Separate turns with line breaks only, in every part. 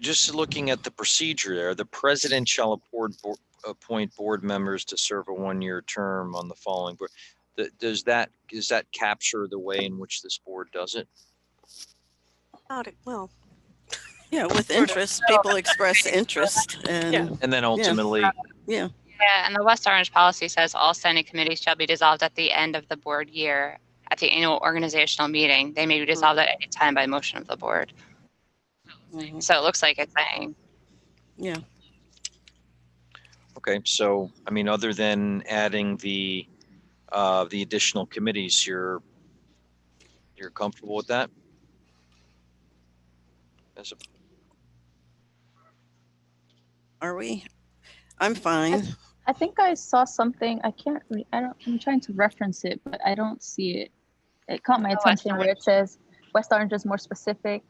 just looking at the procedure there, the president shall appoint, bo- appoint board members to serve a one-year term on the following board. Th- Does that, does that capture the way in which this board does it?
Not, well,
Yeah, with interest, people express interest and,
And then ultimately,
yeah,
Yeah, and the West Orange policy says all standing committees shall be dissolved at the end of the board year at the annual organizational meeting. They may be dissolved at any time by motion of the board.
mhm,
So it looks like it's saying,
yeah,
okay, so, I mean, other than adding the, uh, the additional committees, you're, you're comfortable with that? As a-
are we? I'm fine.
I think I saw something. I can't. Re- I don't. I'm trying to reference it, but I don't see it. It caught my
Oh, West
attention where it says West Orange is more specific,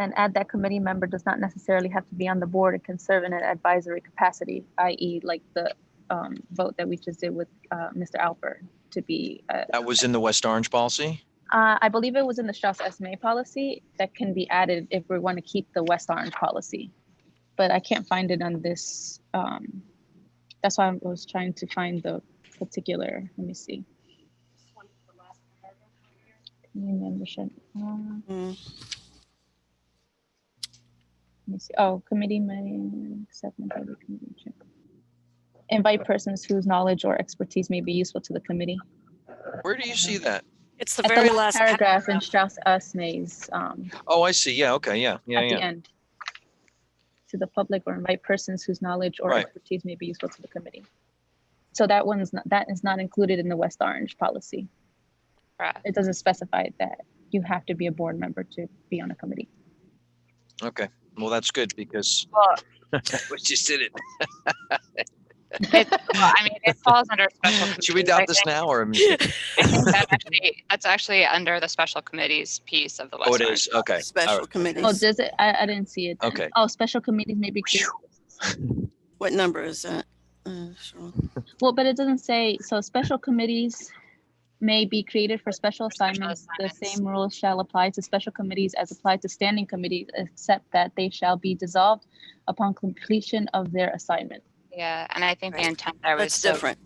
and add that committee member does not necessarily have to be on the board and can serve in an advisory capacity, i.e., like the um, vote that we just did with uh, Mr. Alper to be. Uh,
That was in the West Orange policy?
uh, I believe it was in the Strauss SMA policy that can be added if we want to keep the West Orange policy, but I can't find it on this. Um, that's why I was trying to find the particular. Let me see. Community membership. uh, let
Mm,
me see. Oh, committee may accept and approve the committee check. Invite persons whose knowledge or expertise may be useful to the committee.
Where do you see that?
it's the
At
very last
paragraph in Strauss Esme's um,
Oh, I see. Yeah, okay, yeah, yeah,
at the
yeah.
end. To the public or invite persons whose knowledge or
Right.
expertise may be useful to the committee. So that one's not, that is not included in the West Orange policy.
correct.
It doesn't specify that you have to be a board member to be on a committee.
Okay, well, that's good because
Well,
we just did it.
it, well, I mean, it falls under special.
Should we
committees. I
adopt this
think-
now or?
I think that actually- That's actually under the special committees piece of the West
Oh, it is.
Orange.
Okay. all
Special
right.
Oh,
committees,
does it? I, I didn't see it. then.
Okay.
Oh, special committees may be, created.
what number is that? Uh, sure.
well, but it doesn't say, so special committees may be created for special
special
assignments. The
assignments.
same rules shall apply to special committees as applied to standing committees, except that they shall be dissolved upon completion of their assignment.
Yeah, and I think the
Right.
intent there was.
That's
so-
different.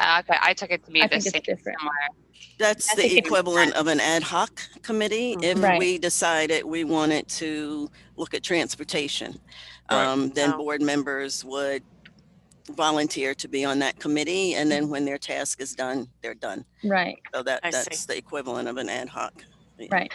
Uh, Okay, I took it to be
I
the
think it's
same
different.
somewhere.
That's
I
the
think it's-
equivalent of an ad hoc committee. If
Mhm. Right.
we decided we wanted to look at transportation,
Right.
um, then
Yeah.
board members would volunteer to be on that committee. And then when their task is done, they're done.
Right,
So that,
I see.
that's the equivalent of an ad hoc.
right.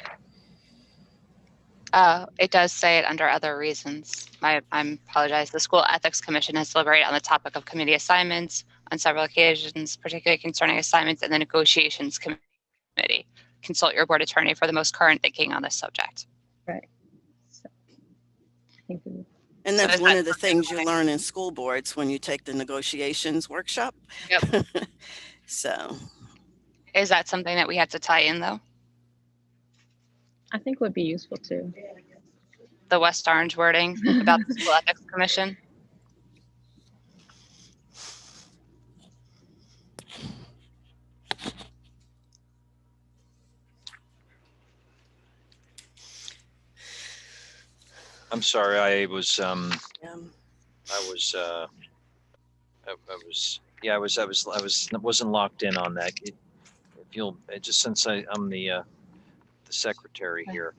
Uh, it does say it under other reasons. My, I apologize. The school ethics commission has deliberated on the topic of committee assignments on several occasions, particularly concerning assignments and the negotiations committee. Consult your board attorney for the most current thinking on this subject.
So, I think we-
And
So
that's
is
one
that
of the
something
things you
like-
learn in school boards when you take the negotiations workshop. So,
Is that something that we have to tie in though?
I think would be useful too.
The West Orange wording about the school ethics commission?
I'm sorry. I was, um,
um,
I was, uh, I, I was, yeah, I was, I was, I was, wasn't locked in on that. It- If you'll, it just since I, I'm the, uh, the secretary here.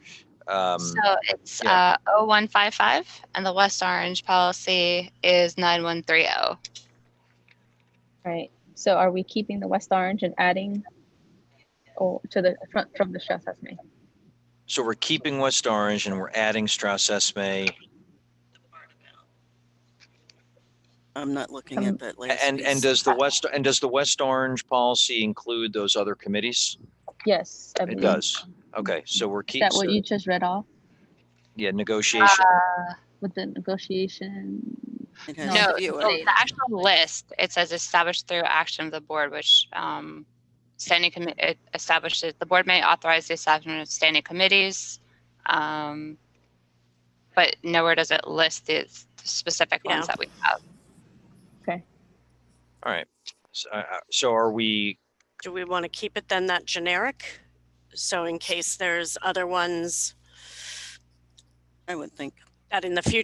Um,
So it's
yeah.
uh, 0155 and the West Orange policy is 9130.
Right. So are we keeping the West Orange and adding or to the front from the stress assessment?
so we're keeping West Orange and we're adding Strauss Esme
I'm not looking
Um,
at that last.
and, and
piece.
does the West, and does the West Orange policy include those other committees?
Yes. I
It
believe.
does. Okay. So we're
Is
keeping,
that what you just read off
yeah, negotiation.
with the negotiation?
It
No,
has
No,
a viewer.
the the actual list, it says established through action of the board, which um, standing committee establishes, the board may authorize the establishment of standing committees. um, But nowhere does it list the s- specific
Yeah.
ones that we have.
All right. So, uh, uh, so are we,
Do we want to keep it then that generic? So in case there's other ones
I would think.
that in the future